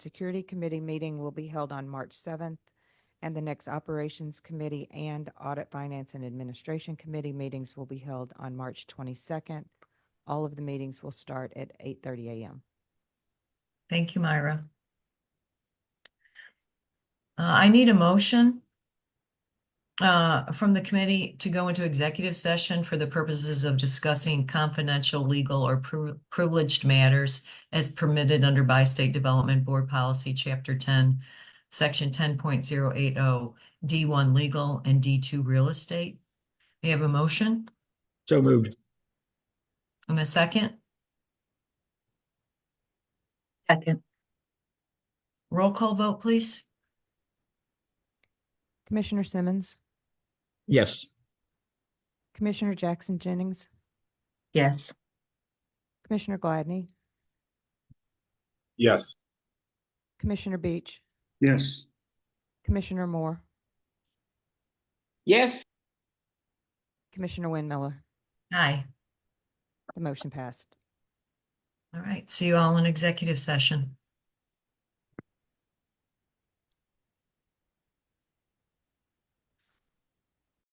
Security Committee meeting will be held on March seventh, and the next Operations Committee and Audit, Finance, and Administration Committee meetings will be held on March twenty-second. All of the meetings will start at eight thirty AM. Thank you, Myra. Uh, I need a motion uh, from the committee to go into executive session for the purposes of discussing confidential, legal, or pri- privileged matters as permitted under by State Development Board Policy, Chapter ten, Section ten point zero eight oh, D one legal and D two real estate. We have a motion So moved. and a second. Second. Roll call vote, please. Commissioner Simmons, Yes. Commissioner Jackson Jennings, Yes. Commissioner Gladney, Yes. Commissioner Beach, Yes. Commissioner Moore, Yes. Commissioner Winmiller. Aye. The motion passed. All right. See you all in executive session.